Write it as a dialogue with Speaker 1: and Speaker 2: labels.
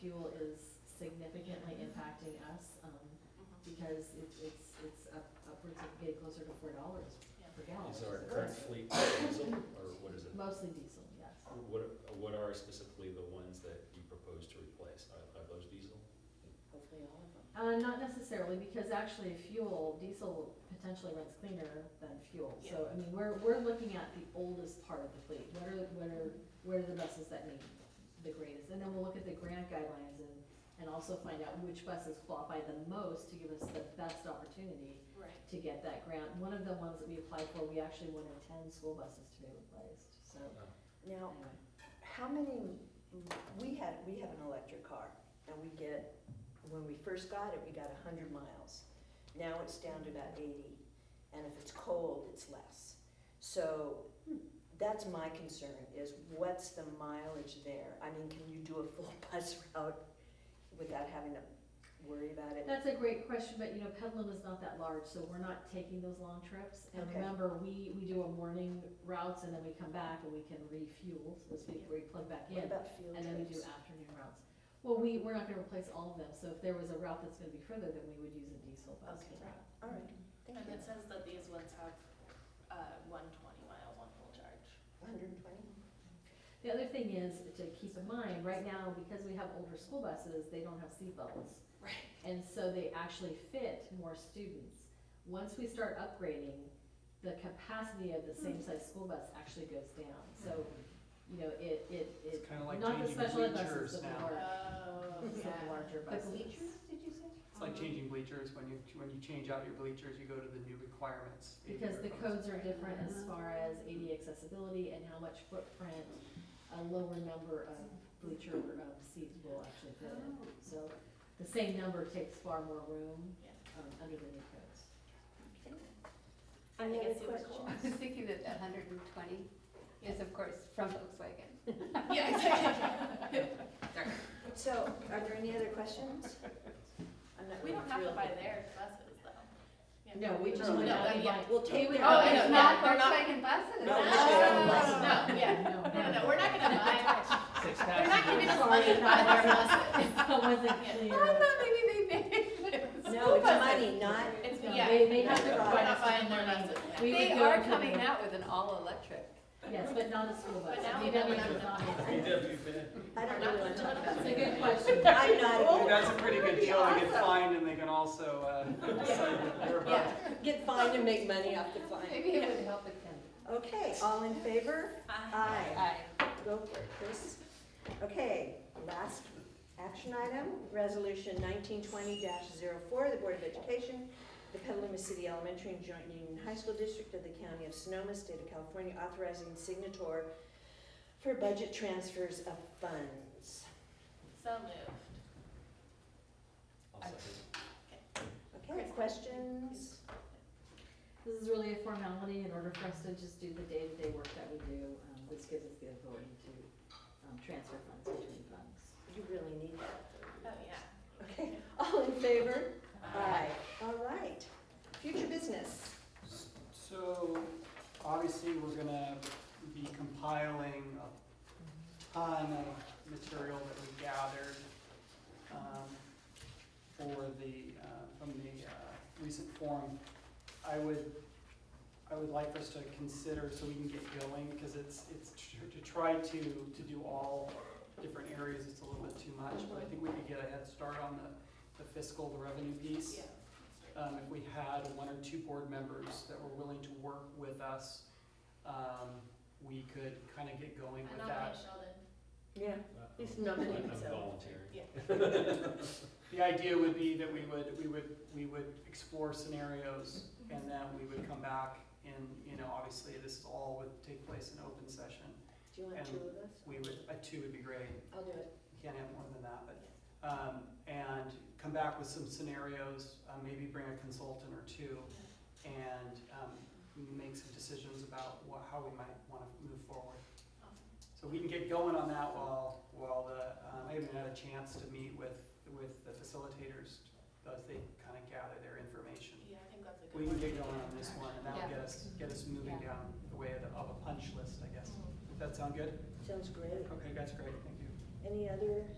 Speaker 1: fuel is significantly impacting us, um, because it's, it's, it's up- upwards of getting closer to four dollars per gallon.
Speaker 2: Is
Speaker 1: which
Speaker 2: our
Speaker 1: is
Speaker 2: current
Speaker 1: great.
Speaker 2: fleet diesel, or what is it?
Speaker 1: Mostly diesel, yes.
Speaker 2: What, what are specifically the ones that you propose to replace? Are, are those diesel?
Speaker 3: Hopefully all of them.
Speaker 1: Uh, not necessarily, because actually fuel, diesel potentially runs cleaner than fuel. So, I mean, we're, we're looking at the oldest part of the fleet. What are, what are, what are the buses that need the greatest? And then we'll look at the grant guidelines and, and also find out which buses qualify the most to give us the best opportunity
Speaker 3: Right.
Speaker 1: to get that grant. One of the ones that we applied for, we actually wanted ten school buses to be replaced, so
Speaker 4: Now,
Speaker 1: anyway.
Speaker 4: how many, we had, we have an electric car, and we get, when we first got it, we got a hundred miles. Now it's down to about eighty, and if it's cold, it's less. So, that's my concern, is what's the mileage there? I mean, can you do a full bus route without having to worry about it?
Speaker 1: That's a great question, but you know, Pedaluma is not that large, so we're not taking those long trips. And
Speaker 4: Okay.
Speaker 1: remember, we, we do a morning routes and then we come back and we can refuel, so to speak, where we plug back in.
Speaker 4: What about field
Speaker 1: And then we do
Speaker 4: trips?
Speaker 1: afternoon routes. Well, we, we're not gonna replace all of them, so if there was a route that's gonna be further, then we would use a diesel bus for
Speaker 4: Okay.
Speaker 1: that.
Speaker 4: All right, thank
Speaker 3: And
Speaker 4: you.
Speaker 3: it says that these ones have, uh, one twenty mile, one full charge.
Speaker 4: Hundred and twenty?
Speaker 1: The other thing is to keep in mind, right now, because we have older school buses, they don't have seat belts.
Speaker 3: Right.
Speaker 1: And so they actually fit more students. Once we start upgrading, the capacity of the same size school bus actually goes down. So, you know, it, it,
Speaker 5: It's
Speaker 1: it,
Speaker 5: kinda like
Speaker 1: not the
Speaker 5: changing
Speaker 1: special ed
Speaker 5: bleachers
Speaker 1: buses, but the
Speaker 5: now.
Speaker 1: large,
Speaker 3: Oh,
Speaker 1: the
Speaker 3: yeah.
Speaker 1: larger buses.
Speaker 4: did you say?
Speaker 1: Um,
Speaker 3: Um,
Speaker 5: It's like changing bleachers, when you, when you change out your bleachers, you go to the new requirements. in
Speaker 1: Because
Speaker 5: your
Speaker 1: the codes
Speaker 5: codes.
Speaker 1: are different as far as AD accessibility and how much footprint a lower number of bleacher um, seats will actually fit in.
Speaker 3: Oh.
Speaker 1: So the same number takes far more room
Speaker 3: Yeah.
Speaker 1: um, under the new codes.
Speaker 3: I
Speaker 6: Any
Speaker 3: think
Speaker 6: other
Speaker 3: it's super cool.
Speaker 6: questions? I was thinking that that hundred and twenty is of course from Volkswagen.
Speaker 3: Yeah, exactly.
Speaker 4: So, are there any other questions? I'm not
Speaker 3: We
Speaker 4: really
Speaker 3: don't have to
Speaker 4: thrilled
Speaker 3: buy
Speaker 4: with-
Speaker 3: their buses though. Yeah.
Speaker 1: No, we just
Speaker 4: No,
Speaker 1: went
Speaker 3: no,
Speaker 1: out and
Speaker 3: yeah,
Speaker 1: like.
Speaker 4: we'll take
Speaker 1: we
Speaker 4: it.
Speaker 1: went
Speaker 3: Oh,
Speaker 1: out
Speaker 3: I
Speaker 1: and
Speaker 3: know,
Speaker 6: It's
Speaker 1: bought-
Speaker 6: not
Speaker 3: they're not-
Speaker 6: Volkswagen buses.
Speaker 4: No,
Speaker 3: No,
Speaker 4: we just got a
Speaker 1: bus.
Speaker 3: no, yeah.
Speaker 1: No,
Speaker 3: No, no, we're not gonna buy,
Speaker 5: Six
Speaker 3: we're not giving
Speaker 5: passengers,
Speaker 3: us money to buy their buses.
Speaker 1: That wasn't
Speaker 6: I
Speaker 1: clear.
Speaker 6: thought maybe they made it.
Speaker 4: No, it's money, not,
Speaker 3: It's,
Speaker 1: No,
Speaker 3: yeah.
Speaker 1: they- they have
Speaker 4: to
Speaker 3: We're
Speaker 4: buy
Speaker 3: not
Speaker 1: us
Speaker 3: buying their
Speaker 1: money.
Speaker 3: buses.
Speaker 1: We
Speaker 6: They
Speaker 1: would go
Speaker 6: are
Speaker 1: to
Speaker 6: coming
Speaker 1: the-
Speaker 6: out with an all-electric.
Speaker 1: Yes, but not a school bus.
Speaker 3: But now
Speaker 1: We
Speaker 3: we
Speaker 1: don't
Speaker 3: know
Speaker 1: have
Speaker 3: we're
Speaker 1: a
Speaker 3: not-
Speaker 1: bus.
Speaker 4: I don't really wanna talk about
Speaker 1: That's a
Speaker 4: it.
Speaker 1: good question.
Speaker 4: I'm not,
Speaker 5: that's a pretty good deal, they get fined and they can also, uh, decide that they're about.
Speaker 3: Yeah.
Speaker 4: get fined and make money off the fine.
Speaker 6: Maybe it would help attend.
Speaker 4: Okay, all in favor? Aye.
Speaker 6: Aye.
Speaker 4: Go for it, Chris. Okay, last action item, resolution nineteen twenty 4 the Board of Education, the Petaluma City Elementary and Joint Union High School District of the County of Sonoma, State of California, authorizing signator for budget transfers of funds.
Speaker 3: So moved.
Speaker 2: I'll second.
Speaker 4: Okay, questions?
Speaker 1: This is really a formality in order for us to just do the day-to-day work that we do. Um, This gives us the authority to um, transfer funds between funds.
Speaker 4: You really need that.
Speaker 3: Oh, yeah.
Speaker 4: Okay, all in favor?
Speaker 3: Aye.
Speaker 4: All right, future business.
Speaker 5: So, obviously, we're gonna be compiling a ton of material that we gathered, um, for the, uh, from the, uh, recent forum. I would, I would like for us to consider, so we can get going, because it's, it's, tr- to try to, to do all different areas, it's a little bit too much, but I think we could get a head start on the, the fiscal, the revenue piece um, if we had one or two board members that were willing to work with us, um, we could kind of get going
Speaker 3: I
Speaker 5: with
Speaker 3: nominate
Speaker 5: that.
Speaker 3: Sheldon.
Speaker 4: Yeah. He's nominating
Speaker 2: I'm- I'm
Speaker 4: himself.
Speaker 2: volunteering.
Speaker 3: Yeah.
Speaker 5: The idea would be that we would, we would, we would explore scenarios and then we would come back and, you know, obviously this is all would take place in open session.
Speaker 4: Do you want
Speaker 5: And
Speaker 4: two of us?
Speaker 5: We would, a two would be great,
Speaker 4: I'll do it.
Speaker 5: can't have more than that, but, um, and come back with some scenarios, uh, maybe bring a consultant or two and, um, make some decisions about wha how we might wanna move forward.
Speaker 3: Awesome.
Speaker 5: So we can get going on that while, while the, um, I haven't had a chance to meet with, with the facilitators as they kind of gather their information.
Speaker 3: Yeah, I think that's a good
Speaker 5: We
Speaker 3: one.
Speaker 5: can get going on this one, and that'll
Speaker 6: Yeah.
Speaker 5: get us, get us moving
Speaker 6: Yeah.
Speaker 5: down the way of the,
Speaker 3: Mm.
Speaker 5: of a punch list, I guess. Does that sound good?
Speaker 4: Sounds great.
Speaker 5: Okay, that's great, thank you.
Speaker 4: Any other